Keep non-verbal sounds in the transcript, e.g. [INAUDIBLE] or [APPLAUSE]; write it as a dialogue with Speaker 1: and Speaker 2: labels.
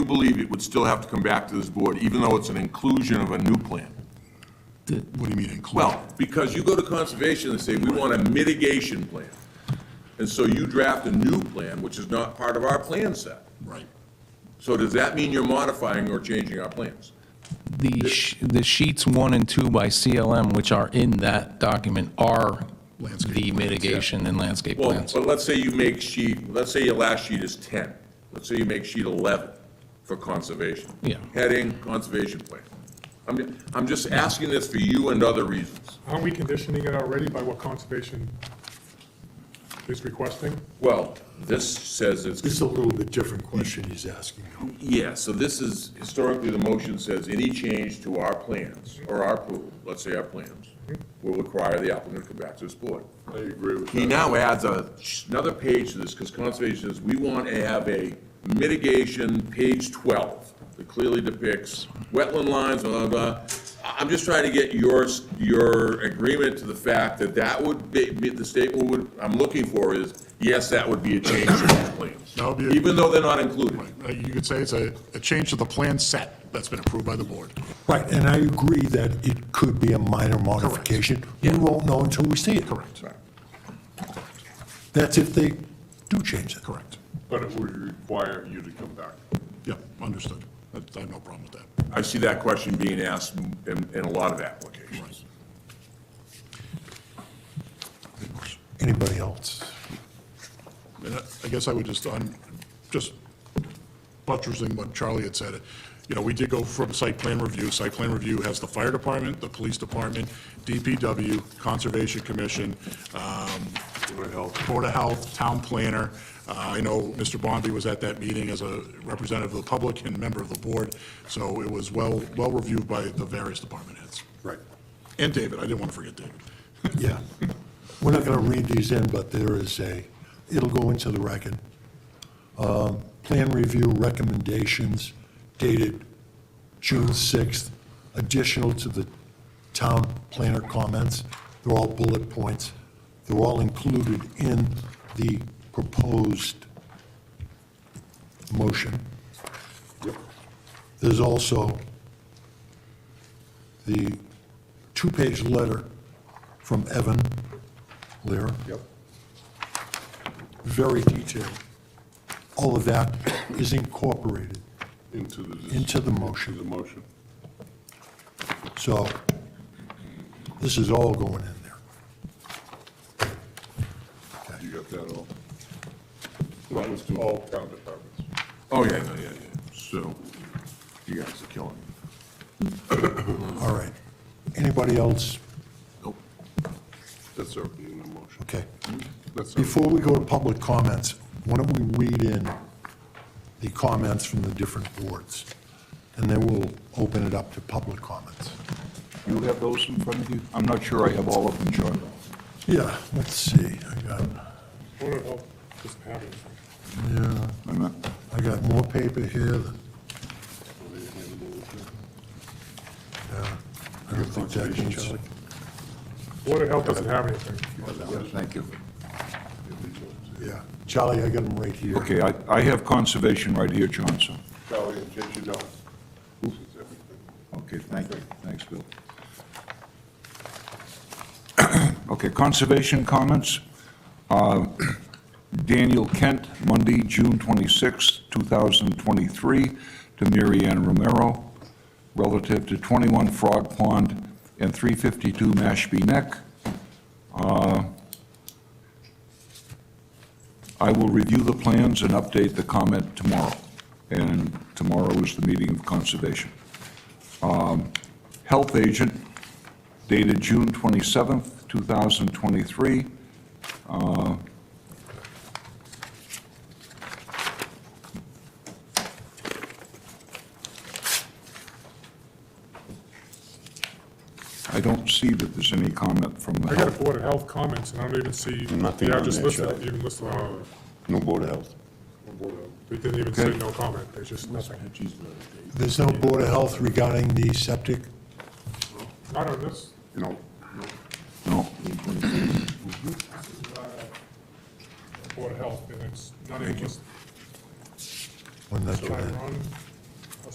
Speaker 1: believe it would still have to come back to this board, even though it's an inclusion of a new plan?
Speaker 2: What do you mean include?
Speaker 1: Well, because you go to conservation and say, we want a mitigation plan. And so you draft a new plan, which is not part of our plan set.
Speaker 2: Right.
Speaker 1: So does that mean you're modifying or changing our plans?
Speaker 3: The, sh- the sheets one and two by CLM, which are in that document, are the mitigation and landscape
Speaker 1: Well,
Speaker 3: plans.
Speaker 1: but let's say you make sheet, let's say your last sheet is ten. Let's say you make sheet eleven for conservation.
Speaker 3: Yeah.
Speaker 1: Heading, conservation plan. I'm, I'm just asking this for you and other reasons.
Speaker 4: Aren't we conditioning it already by what conservation is requesting?
Speaker 1: Well, this says it's
Speaker 2: This is a little bit different question he's asking.
Speaker 1: Yeah, so this is, historically, the motion says any change to our plans, or our pool, let's say our plans, will require the applicant to come back to this board.
Speaker 5: I agree with
Speaker 1: He
Speaker 5: that.
Speaker 1: now adds a, another page to this, because conservation says, we want to have a mitigation, page twelve, that clearly depicts wetland lines, blah, blah, blah. I- I'm just trying to get yours, your agreement to the fact that that would be, be- the statement would, I'm looking for is, yes, that would be a change to our plans.
Speaker 2: That would be a-
Speaker 1: Even though they're not included.
Speaker 2: Uh, You could say it's a, a change to the plan set that's been approved by the board.
Speaker 6: Right, and I agree that it could be a minor modification. We won't know until we see it. Correct. That's if they do change it. Correct.
Speaker 5: But it would require you to come back.
Speaker 2: Yeah, understood. I I have no problem with that.
Speaker 1: I see that question being asked in, in a lot of applications.
Speaker 6: Anybody else?
Speaker 2: And I- I guess I would just, I'm just buttressing what Charlie had said. You know, we did go from site plan review. Site plan review has the fire department, the police department, DPW, Conservation Commission, um, Board of Health, Town Planner. Uh, I know Mr. Bombi was at that meeting as a representative of the public and member of the board, so it was well, well reviewed by the various department heads.
Speaker 6: Right.
Speaker 2: And David, I didn't want to forget David.
Speaker 6: Yeah. We're not going to read these in, but there is a, it'll go into the record. Um, Plan review recommendations dated June 6th, additional to the town planner comments. They're all bullet points. They're all included in the proposed motion. There's also the two-page letter from Evan Lear. Yep. Very detailed. All of that is incorporated.
Speaker 5: Into the.
Speaker 6: Into the motion.
Speaker 5: Into the motion.
Speaker 6: So this is all going in there.
Speaker 5: You got that all? That was to all town departments.
Speaker 1: Oh, yeah, yeah, yeah, yeah. So, you guys are killing me.
Speaker 6: All right. Anybody else?
Speaker 1: Nope.
Speaker 5: That's already in the motion.
Speaker 6: Okay.
Speaker 5: That's already-
Speaker 6: Before we go to public comments, why don't we read in the comments from the different boards? And then we'll open it up to public comments.
Speaker 7: You have those in front of you? I'm not sure I have all of them, John.
Speaker 6: Yeah, let's see. I got,
Speaker 4: Board of Health doesn't have it.
Speaker 6: yeah,
Speaker 7: I'm not-
Speaker 6: I got more paper here than. Yeah, I don't think that needs,
Speaker 4: Board of Health doesn't have anything.
Speaker 7: yeah, Thank you.
Speaker 6: yeah. Charlie, I got them right here.
Speaker 7: Okay, I, I have conservation right here, Johnson.
Speaker 5: Charlie, in case you don't. This is everything.
Speaker 7: Okay, thank you. Thanks, Bill. [CLEARS THROAT] Okay, conservation comments. Uh, Daniel Kent, Monday, June 26, 2023, to Mary Ann Romero, relative to 21 Frog Pond and 352 Mashpee Neck. Uh, I will review the plans and update the comment tomorrow, and tomorrow is the meeting of conservation Um, health agent dated June 27th, 2023. Uh, I don't see that there's any comment from the
Speaker 4: I got
Speaker 7: health
Speaker 4: a Board of Health comments, and I don't even see
Speaker 5: Nothing
Speaker 4: the
Speaker 5: on
Speaker 4: address
Speaker 5: there,
Speaker 4: listed,
Speaker 5: Charlie.
Speaker 4: even listed on
Speaker 5: No Board of Health.
Speaker 4: it. They didn't even say no comment, there's just nothing.
Speaker 6: There's no Board of Health regarding the septic?
Speaker 4: Not on this.
Speaker 5: No.
Speaker 7: No.
Speaker 4: Board of Health, and it's not even listed.
Speaker 6: When that,
Speaker 4: Am I wrong?